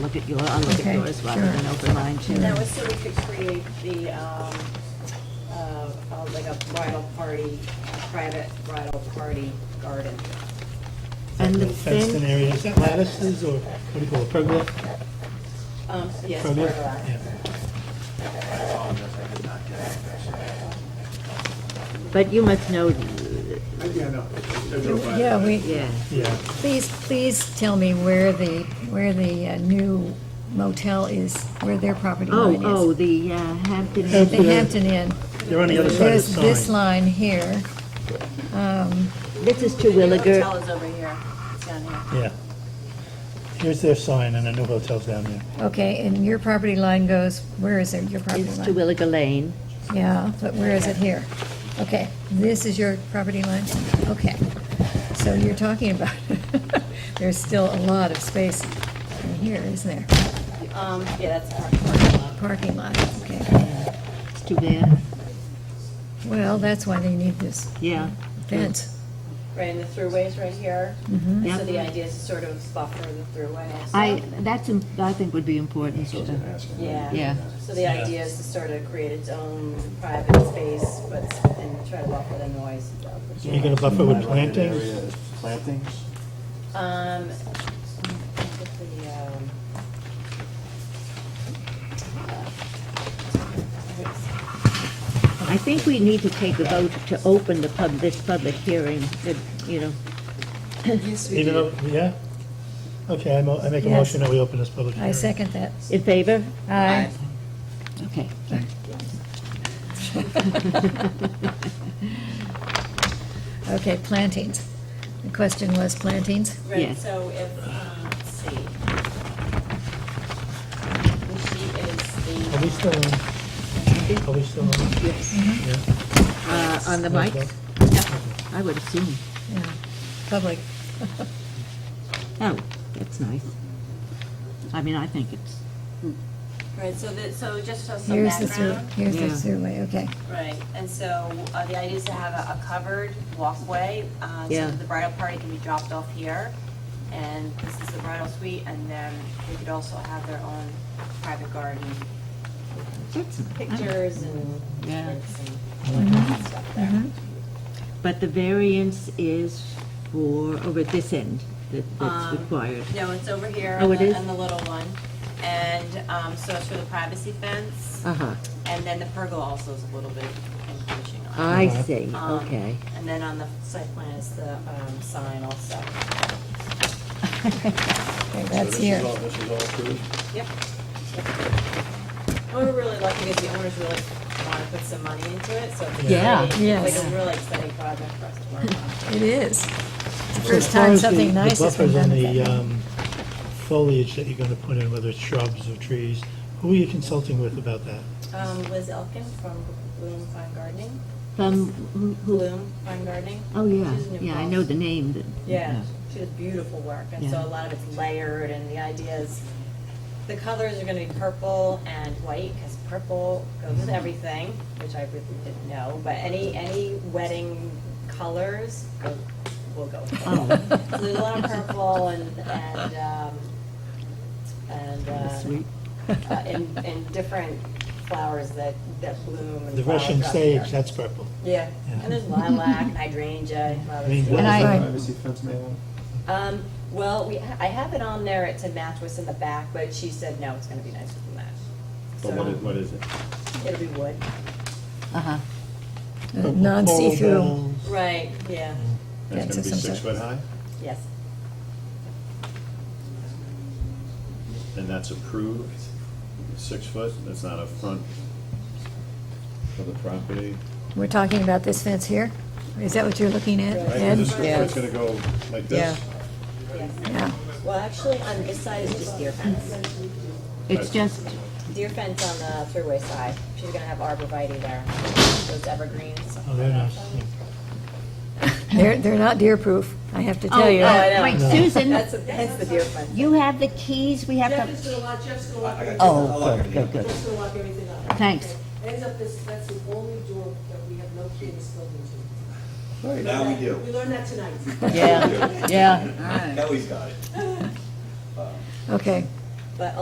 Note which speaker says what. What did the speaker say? Speaker 1: look at your, I'll look at
Speaker 2: Okay,
Speaker 1: yours rather
Speaker 2: sure.
Speaker 1: than open mine too.
Speaker 3: And that was so we could create the, um, uh, uh, like a bridal party, a private bridal party garden.
Speaker 1: And the
Speaker 4: fenced in
Speaker 1: thing,
Speaker 4: area, is that lattices or what do you call it, pergola?
Speaker 3: Um, yes,
Speaker 4: Pergola?
Speaker 3: pergola.
Speaker 4: Yeah.
Speaker 1: but you must know,
Speaker 5: Yeah, no.
Speaker 2: Yeah, we,
Speaker 1: yeah.
Speaker 4: Yeah,
Speaker 2: please, please tell me where the, where the uh, new motel is, where their property
Speaker 1: Oh,
Speaker 2: line
Speaker 1: oh,
Speaker 2: is.
Speaker 1: the uh, Hampton
Speaker 4: Yeah.
Speaker 2: The Hampton Inn.
Speaker 4: they're on the other side of
Speaker 2: There's
Speaker 4: the
Speaker 2: this
Speaker 4: sign.
Speaker 2: line here. Um,
Speaker 1: This is Terwilliger.
Speaker 3: Hotel is over here, it's down here.
Speaker 4: Yeah. Here's their sign and the new hotel's down there.
Speaker 2: Okay, and your property line goes, where is it, your property
Speaker 1: It's
Speaker 2: line?
Speaker 1: Terwilliger Lane.
Speaker 2: Yeah, but where is it here? Okay, this is your property line? Okay. So you're talking about, there's still a lot of space in here, isn't there?
Speaker 3: Um, yeah, that's our parking lot.
Speaker 2: Parking lot, okay.
Speaker 1: It's too bad.
Speaker 2: Well, that's why they need this
Speaker 1: Yeah.
Speaker 2: fence.
Speaker 3: Right, and the throughway's right here.
Speaker 2: Mhm.
Speaker 3: So
Speaker 1: Mm-hmm. Yep.
Speaker 3: the idea is to sort of buffer the throughway also.
Speaker 1: I, that's, im- I think would be important, sort of.
Speaker 3: Yeah.
Speaker 1: Yeah.
Speaker 3: So the idea is to sort of create its own private space, but, and try to buffer the noise.
Speaker 4: So you're gonna buffer with plantings?
Speaker 5: Plantings?
Speaker 3: Um, with the, um, uh,
Speaker 1: I think we need to take a vote to open the pub, this public hearing, that, you know,
Speaker 4: Even though, yeah? Okay, I mo- I make a
Speaker 2: Yes.
Speaker 4: motion that we open this public hearing.
Speaker 2: I second that.
Speaker 1: in favor? Uh,
Speaker 2: Aye.
Speaker 1: Okay.
Speaker 2: Okay, plantings. The question was plantings?
Speaker 3: Right,
Speaker 1: Yes.
Speaker 3: so if, um, let's see. She is
Speaker 4: Are we still on? Are we still on?
Speaker 1: Yes.
Speaker 4: Yeah.
Speaker 1: Uh, On the mic? I would assume.
Speaker 2: Yeah, Public.
Speaker 1: Oh, that's nice. I mean, I think it's,
Speaker 3: the, right, so that, so just so some
Speaker 2: Here's the,
Speaker 3: background.
Speaker 2: sur- here's the
Speaker 1: Yeah.
Speaker 2: survey, okay.
Speaker 3: Right, and so uh, the idea is to have a a covered walkway, uh, so
Speaker 1: Yeah.
Speaker 3: that the bridal party can be dropped off here. And this is the bridal suite, and then they could also have their own private garden,
Speaker 1: it's,
Speaker 3: pictures and
Speaker 1: Yeah.
Speaker 3: prints and stuff
Speaker 1: Mm-hmm.
Speaker 3: there.
Speaker 2: Mhm.
Speaker 1: but the variance is for, over at this end, that that's
Speaker 3: Um,
Speaker 1: required.
Speaker 3: No, it's over here
Speaker 1: Oh,
Speaker 3: on
Speaker 1: it is?
Speaker 3: the, on the little one. And um, so it's for the privacy fence,
Speaker 1: Uh-huh,
Speaker 3: and then the pergola also is a little bit encroaching on.
Speaker 1: I
Speaker 4: Uh-huh.
Speaker 1: see,
Speaker 3: Um,
Speaker 1: Uh, okay.
Speaker 3: And then on the site plan is the um, sign also.
Speaker 2: Okay, That's here.
Speaker 5: This is all approved?
Speaker 3: Yep. Well, We're really lucky because the owners really want to put some money into it, so it's
Speaker 1: Yeah.
Speaker 3: really- it's like
Speaker 2: Yes.
Speaker 3: a really exciting project for us to work on.
Speaker 2: It is. It's the
Speaker 4: So as
Speaker 2: first
Speaker 4: far
Speaker 2: time
Speaker 4: as the-
Speaker 2: something nice has been done.
Speaker 4: The
Speaker 2: with
Speaker 4: buffers
Speaker 2: that.
Speaker 4: on the um, foliage that you're going to put in, whether it's shrubs or trees, who are you consulting with about that?
Speaker 3: Um, Liz Elkin from Bloom Fine Gardening,
Speaker 1: From, who- who,
Speaker 3: Bloom Fine Gardening.
Speaker 1: oh, yeah,
Speaker 3: She's in New
Speaker 1: yeah, I
Speaker 3: Paltz.
Speaker 1: know the name that.
Speaker 3: Yeah, she does beautiful work, and
Speaker 1: Yeah.
Speaker 3: so a lot of it's layered, and the idea is, the colors are gonna be purple and white, because purple goes
Speaker 1: Mm-hmm.
Speaker 3: with everything, which I really didn't know, but any, any wedding colors go, will go with
Speaker 1: Oh.
Speaker 3: it. So there's a lot of purple and, and, um, and,
Speaker 1: That's sweet.
Speaker 3: uh, uh, and, and different flowers that, that bloom and
Speaker 4: The
Speaker 3: flower
Speaker 4: Russian
Speaker 3: up
Speaker 4: sage,
Speaker 3: there.
Speaker 4: that's purple.
Speaker 3: Yeah,
Speaker 4: Yeah.
Speaker 3: and there's lilac, hydrangea, and
Speaker 4: I
Speaker 3: others.
Speaker 4: mean, what
Speaker 2: And
Speaker 4: is
Speaker 2: I-
Speaker 4: that?
Speaker 5: Privacy fence man.
Speaker 3: Um, well, we, I have it on there to match what's in the back, but she said, no, it's gonna be nicer than that.
Speaker 5: But what is,
Speaker 3: So,
Speaker 5: what is it?
Speaker 3: it'll be wood.
Speaker 1: Uh-huh.
Speaker 2: Uh, Non-see-through.
Speaker 4: Coral bells.
Speaker 3: Right, yeah,
Speaker 2: Yeah, it's
Speaker 5: That's gonna be
Speaker 2: some
Speaker 5: six
Speaker 2: sort
Speaker 5: foot high,
Speaker 3: Mm-hmm. yes.
Speaker 5: and that's approved, six foot, that's not a front for the property.
Speaker 2: We're talking about this fence here? Is that what you're looking at,
Speaker 5: Right,
Speaker 2: Ed?
Speaker 5: and this foot's gonna go like this?
Speaker 2: Yeah.
Speaker 3: Well, actually, on this side is just deer fence.
Speaker 1: It's just,
Speaker 3: Deer fence on the thruway side. She's gonna have arborvitae there, those evergreens.
Speaker 4: Oh, very nice.
Speaker 2: They're, they're not deer-proof, I have to
Speaker 1: oh,
Speaker 2: tell you.
Speaker 3: I
Speaker 1: uh,
Speaker 3: know.
Speaker 1: wait,
Speaker 4: No.
Speaker 1: Susan,
Speaker 3: That's, that's the deer fence.
Speaker 1: you have the keys, we have
Speaker 6: Jeff is
Speaker 1: to,
Speaker 6: gonna lock, Jeff's gonna lock. everything up.
Speaker 1: oh, good, good, good.
Speaker 6: Jeff's gonna lock everything up.
Speaker 1: Thanks.
Speaker 6: Ends up this, that's the only door that we have no key in this building to.
Speaker 7: Now we do.
Speaker 6: We learned that tonight.
Speaker 1: Yeah, yeah.
Speaker 7: Now he's got it.
Speaker 2: Okay,